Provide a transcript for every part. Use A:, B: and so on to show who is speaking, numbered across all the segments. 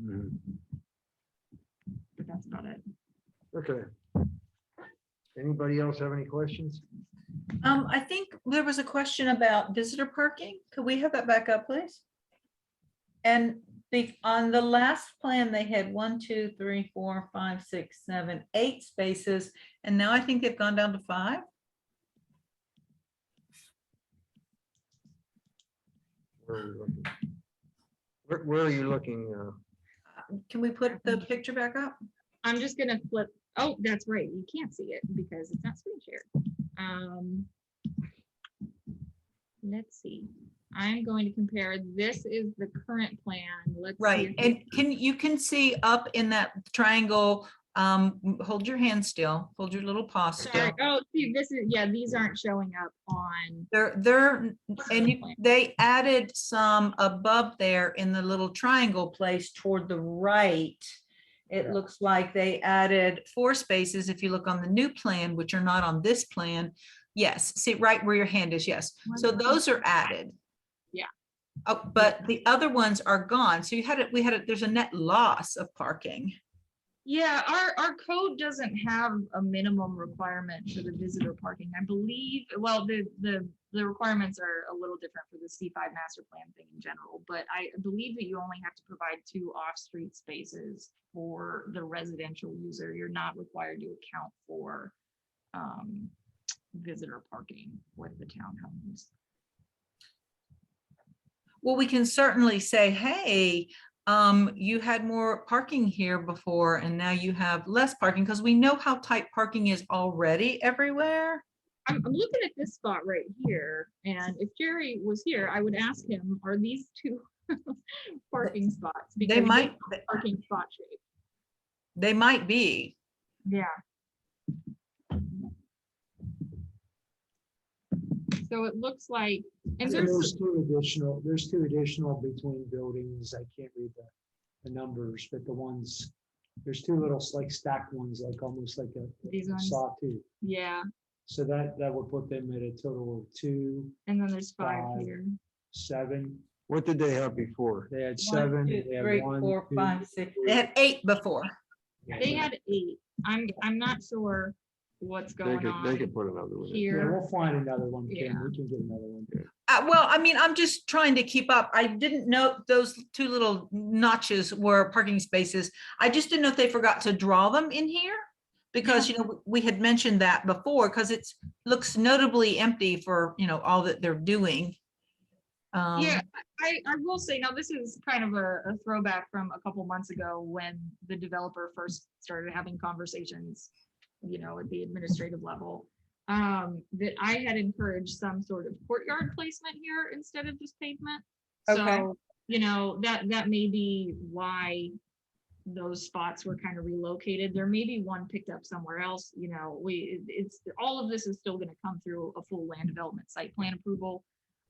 A: Mm-hmm. Okay. Anybody else have any questions?
B: Um, I think there was a question about visitor parking. Could we have that back up, please? And the, on the last plan, they had one, two, three, four, five, six, seven, eight spaces. And now I think they've gone down to five.
A: Where are we looking? Where, where are you looking? uh,
B: Can we put the picture back up?
C: I'm just gonna flip, oh, that's right, you can't see it because it's not screen shared. Um. Let's see, I'm going to compare, this is the current plan, let's. see
B: Right,
C: if
B: and can, you can see up in that triangle, um, m- hold your hand still, hold your little paw
C: this-
B: still.
C: Sorry, oh, see, this is, yeah, these aren't showing up on.
B: They're, they're, and
C: current
B: you-
C: plan.
B: they added some above there in the little triangle place toward the right. It
A: Yeah.
B: looks like they added four spaces if you look on the new plan, which are not on this plan. Yes, see right where your hand is, yes. So
C: Wonderful.
B: those are added.
C: Yeah.
B: Oh, but the other ones are gone. So you had it, we had it, there's a net loss of parking.
C: Yeah, our, our code doesn't have a minimum requirement for the visitor parking, I believe, well, the, the, the requirements are a little different for the C five master plan thing in general, but I believe that you only have to provide two off-street spaces for the residential user, you're not required to account for um, visitor parking with the townhomes.
B: Well, we can certainly say, hey, um, you had more parking here before and now you have less parking because we know how tight parking is already everywhere.
C: I'm, I'm looking at this spot right here, and if Jerry was here, I would ask him, are these two parking spots? Because
B: They might,
C: Parking spot shape.
B: they might be.
C: Yeah. So it looks like, and
D: And
C: there's,
D: there's two additional, there's two additional between buildings. I can't read the, the numbers, but the ones, there's two little like stacked ones, like almost like
C: These
D: a
C: ones?
D: sawtooth.
C: yeah,
D: So that, that would put them at a total of two,
C: and then there's five
D: Five.
C: here.
D: seven.
A: What did they have before?
D: They
B: One,
D: had seven.
B: two,
D: they had
B: three,
D: one,
B: four,
D: two,
B: five, six. They had eight before.
C: They had eight. I'm, I'm not sure what's
A: They
C: going
A: could, they
C: on
A: could put another one in.
D: Yeah,
C: here.
D: we'll find another one, Kim.
C: Yeah.
D: We can get another one.
B: Uh, well, I mean, I'm just trying to keep up. I didn't know those two little notches were parking spaces. I just didn't know if they forgot to draw them in here. Because, you know, w- we had mentioned that before, because it's, looks notably empty for, you know, all that they're doing. Um,
C: Yeah, I, I will say, now this is kind of a, a throwback from a couple months ago when the developer first started having conversations, you know, at the administrative level. Um, that I had encouraged some sort of courtyard placement here instead of just pavement.
B: Okay.
C: So, you know, that, that may be why those spots were kind of relocated. There may be one picked up somewhere else, you know, we, it- it's, all of this is still gonna come through a full land development site plan approval.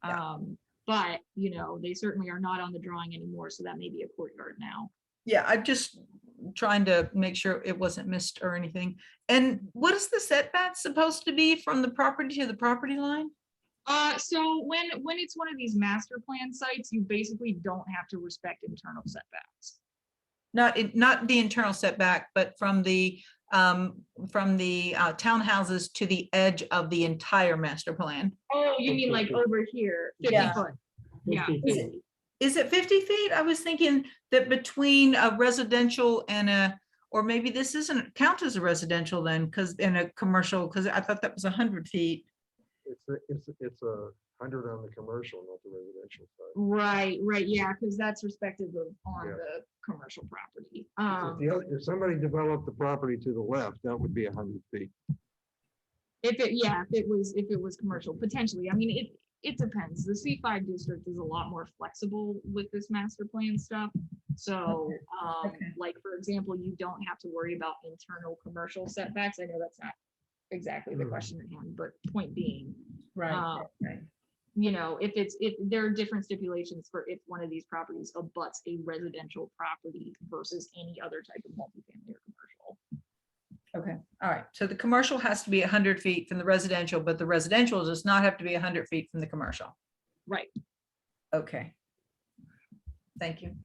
B: Yeah.
C: Um, but, you know, they certainly are not on the drawing anymore, so that may be a courtyard now.
B: Yeah, I'm just trying to make sure it wasn't missed or anything. And what is the setback supposed to be from the property to the property line?
C: Uh, so when, when it's one of these master plan sites, you basically don't have to respect internal setbacks.
B: Not, in- not the internal setback, but from the, um, from the uh, townhouses to the edge of the entire master plan.
C: Oh, you mean like over here, fifty
B: Yeah.
C: foot? Yeah.
D: Fifty
B: Is it-
D: feet.
B: Is it 50 feet? I was thinking that between a residential and a, or maybe this isn't count as a residential then, because in a commercial, because I thought that was 100 feet.
A: It's, a- it's, a- it's a hundred on the commercial, not the residential side.
C: Right, right, yeah, because that's respective of on
A: Yeah.
C: the commercial property.
A: If
C: Um,
A: the other- If somebody developed the property to the left, that would be a hundred feet.
C: If it, yeah, if it was, if it was commercial, potentially, I mean, it, it depends, the C five district is a lot more flexible with this master plan stuff. So, um,
B: okay.
C: like, for example, you don't have to worry about internal commercial setbacks, I know that's not exactly
B: Hmm.
C: the
A: Mm.
C: question at hand, but point being, Um, you know, if it's, if there are different stipulations for if one of these properties abuts a residential property versus any other type of multifamily or commercial.
B: All right, so the commercial has to be hundred feet from the residential, but the residential does not have to be hundred feet from the commercial.
C: Right,
B: Okay. Thank you.